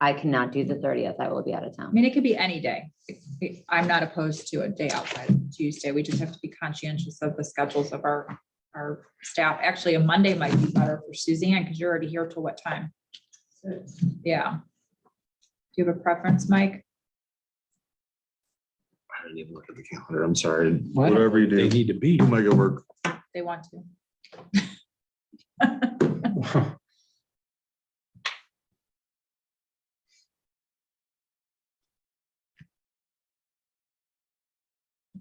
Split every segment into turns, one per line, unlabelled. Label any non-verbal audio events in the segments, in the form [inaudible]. I cannot do the thirtieth. I will be out of
I
town.
mean, it could be any day. It- I'm not opposed to a day outside of Tuesday. We just have to be conscientious of the schedules of our, our staff. Actually, a Monday might be better for Suzanne because you're already here till what time? Yeah. Do you have a preference, Mike?
I didn't even look at the calendar. I'm sorry.
Why don't
Whatever you
They
do,
need to be.
we'll make it work.
They want to.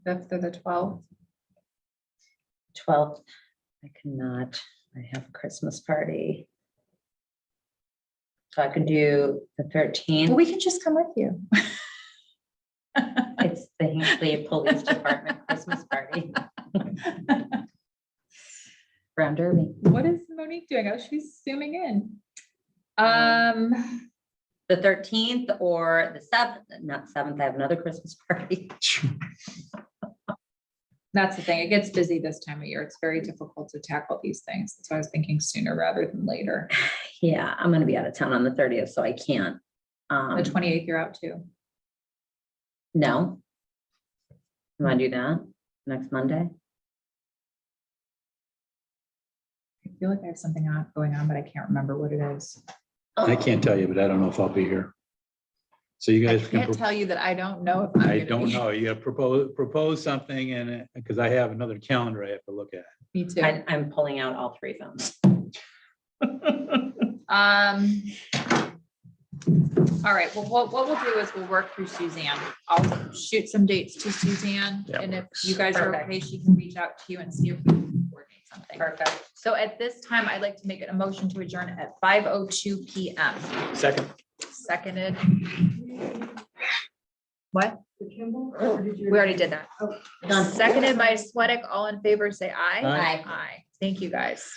Fifth or the twelfth?
Twelfth, I cannot. I have a Christmas party. So I could do the thirteenth.
We can just come with you.
It's the Hinkley Police Department Christmas party. Round Derby.
What is Monique doing? Oh, she's zooming in. Um,
The thirteenth or the seventh, not seventh, I have another Christmas party.
that's the thing. It gets busy this time of year. It's very difficult to tackle these things. So I was thinking sooner rather than later.
Yeah, I'm gonna be out of town on the thirtieth, so I can't. Um,
The twenty-eighth, you're out too.
no. You wanna do that next Monday?
I feel like I have something on, going on, but I can't remember what it is.
I can't tell you, but I don't know if I'll be here. So you
I
guys can,
can't
pro-
tell you that I don't know if I'm.
I
gonna
don't
be-
know, you gotta propose, propose something and, because I have another calendar I have to look at.
[laughs] Me too.
I, I'm pulling out all three phones.
Um. All right, well, what, what we'll do is we'll work through Suzanne. I'll shoot some dates to Suzanne.
That
And if you guys are
Perfect.
okay, she can reach out to you and see if we can coordinate something.
Perfect.
So at this time, I'd like to make a motion to adjourn at five oh two P M.
Second,
Seconded. What? We already did that.
Done.
Seconded by Sweattick. All in favor, say aye.
Aye.
Aye.
Aye. Thank you, guys.